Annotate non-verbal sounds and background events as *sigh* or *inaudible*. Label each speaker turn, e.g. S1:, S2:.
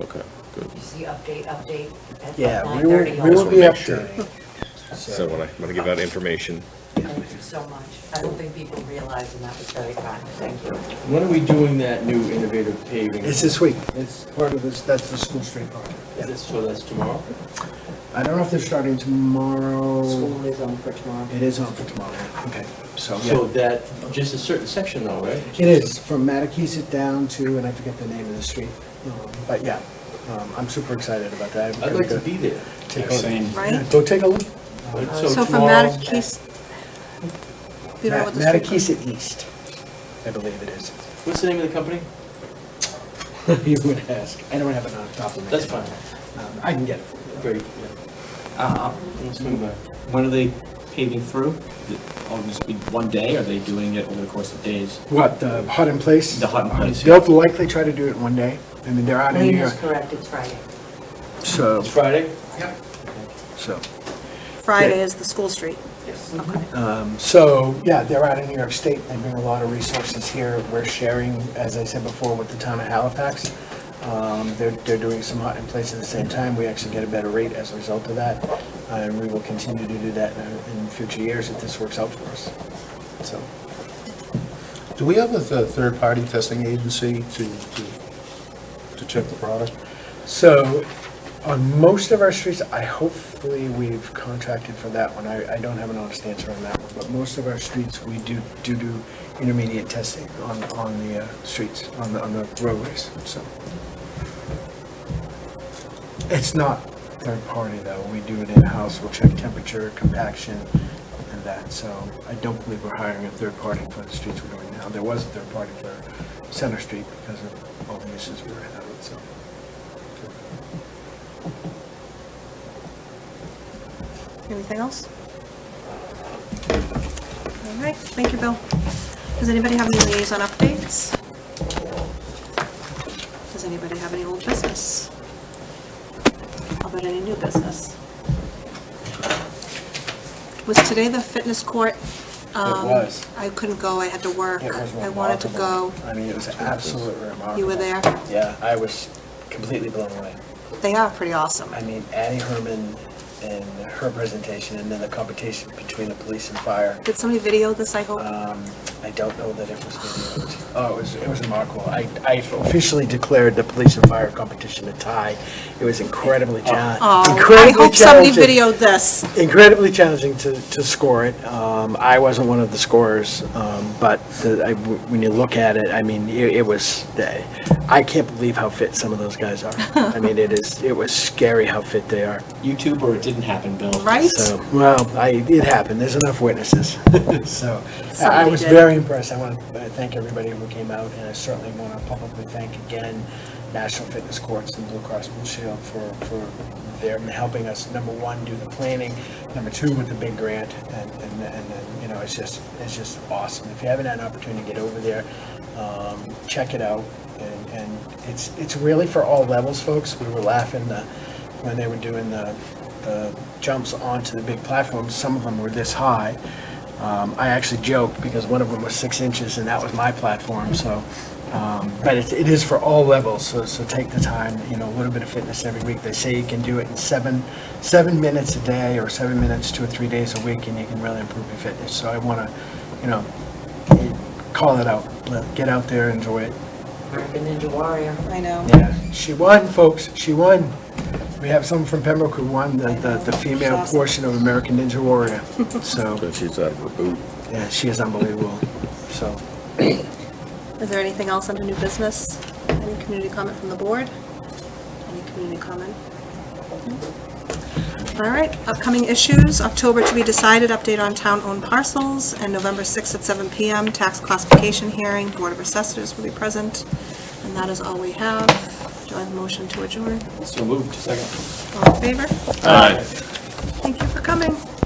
S1: Okay, good.
S2: You see update, update at
S3: Yeah,
S2: nine
S3: we will,
S2: thirty.
S3: we will be
S1: make sure.
S3: updating.
S1: So when I, when I give out information,
S2: Thank you so much. I don't think people realize, and that was very kind. Thank you.
S4: When are we doing that new innovative paving?
S3: It's this week. It's part of this, that's the school street project.
S4: Is this- So that's tomorrow?
S3: I don't know if they're starting tomorrow.
S2: School is on for tomorrow.
S3: It is on for tomorrow. Okay, so,
S4: So
S3: yeah.
S4: that, just a certain section though, right?
S3: It is, from Matakeesit down to, and I forget the name of the street. Um, But yeah, um, I'm super excited about that. I'm
S4: I'd
S3: gonna
S4: like to
S3: go
S4: be there.
S3: take a look.
S5: Same.
S6: Right?
S3: Yeah, Go take a look.
S4: But
S6: So from
S4: tomorrow-
S6: Mattakese, you know
S3: Ma-
S6: what the street is?
S3: Matakeesit East, I believe it is. *laughs*
S4: What's the name of the company?
S3: You would ask. I don't have it on top of me.
S4: That's fine.
S3: I can get it for you.
S4: Great, yeah.
S5: Uh,
S4: Let's swing by.
S5: When are they paving through? Oh, just be one day, or are they doing it over the course of days?
S3: What, the hut in place?
S5: The hut in place,
S3: They'll likely try to do it in one day. I mean, they're out of
S2: Lane
S3: here,
S2: is correct, it's Friday.
S3: so,
S4: It's Friday?
S3: so.
S6: Friday is the school street.
S4: Yes.
S3: um, So, yeah, they're out in New York State. They bring a lot of resources here. We're sharing, as I said before, with the town of Halifax. Um, They're, they're doing some hut in place at the same time. We actually get a better rate as a result of that. And we will continue to do that in, in future years if this works out for us. So,
S7: Do we have a th- third-party testing agency to, to, to check the product?
S3: so on most of our streets, I, hopefully we've contracted for that one. I, I don't have an honest answer on that one. But most of our streets, we do, do do intermediate testing on, on the uh, streets, on the, on the roadways, so. It's not third-party though. We do it in-house. We'll check temperature, compaction, and that. So I don't believe we're hiring a third party for the streets we're doing now. There was a third party for Center Street because of all the issues we were having, so.
S6: Anything else? All right, thank you, Bill. Does anybody have any liaison updates? Does anybody have any old business? How about any new business? Was today the fitness court? um,
S3: was.
S6: I couldn't go, I had to work.
S3: It was
S6: I wanted to go.
S3: remarkable. I mean, it was absolutely remarkable.
S6: You were there?
S3: Yeah, I was completely blown away.
S6: They are pretty awesome.
S3: I mean, Addie Herman and her presentation, and then the competition between the police and fire.
S6: Did somebody video this, I hope?
S3: Um, I don't know that it was videoed. Oh, it was, it was remarkable. I, I officially declared the police and fire competition a tie. It was incredibly challenging.
S6: Oh, I hope somebody videoed this.
S3: Incredibly challenging to, to score it. Um, I wasn't one of the scorers, um, but the, I, when you look at it, I mean, it, it was, I can't believe how fit some of those guys are. I mean, it is, it was scary how fit they are.
S5: YouTube, or it didn't happen, Bill?
S6: Right?
S3: So, well, I, it happened, there's enough witnesses. *laughs* So, uh, I I
S6: Somebody
S3: was
S6: did.
S3: very impressed, I want to thank everybody who came out, and I certainly want to publicly thank again National Fitness Courts and Blue Cross Blue Shield for, for their helping us, number one, do the planning, number two, with the big grant, and, and, and, then, you know, it's just, it's just awesome. If you haven't had an opportunity to get over there, um, check it out, and, and it's, it's really for all levels, folks, we were laughing the, when they were doing the, the jumps onto the big platforms, some of them were this high. Um, I actually joked because one of them was six inches and that was my platform, so. Um, but it, it is for all levels, so, so take the time, you know, a little bit of fitness every week. They say you can do it in seven, seven minutes a day or seven minutes two or three days a week and you can really improve your fitness. So I want to, you know, call it out, Let- get out there, enjoy it.
S2: American Ninja Warrior.
S6: I know.
S3: Yeah, she won, folks, she won. We have someone from Pembroke who won the, the, the female
S6: Awesome.
S3: portion of American Ninja Warrior. So,
S1: but she's out of her boot.
S3: yeah, she is unbelievable, so.
S6: Is there anything else under new business? Any community comment from the board? Any community comment? No? All right, upcoming issues, October to be decided, update on town-owned parcels, and November 6th at 7 PM, tax classification hearing, Board of Assessors will be present, and that is all we have. Do I have a motion to adjourn?
S5: So moved, second.
S6: All in favor? Aye. Thank you for coming.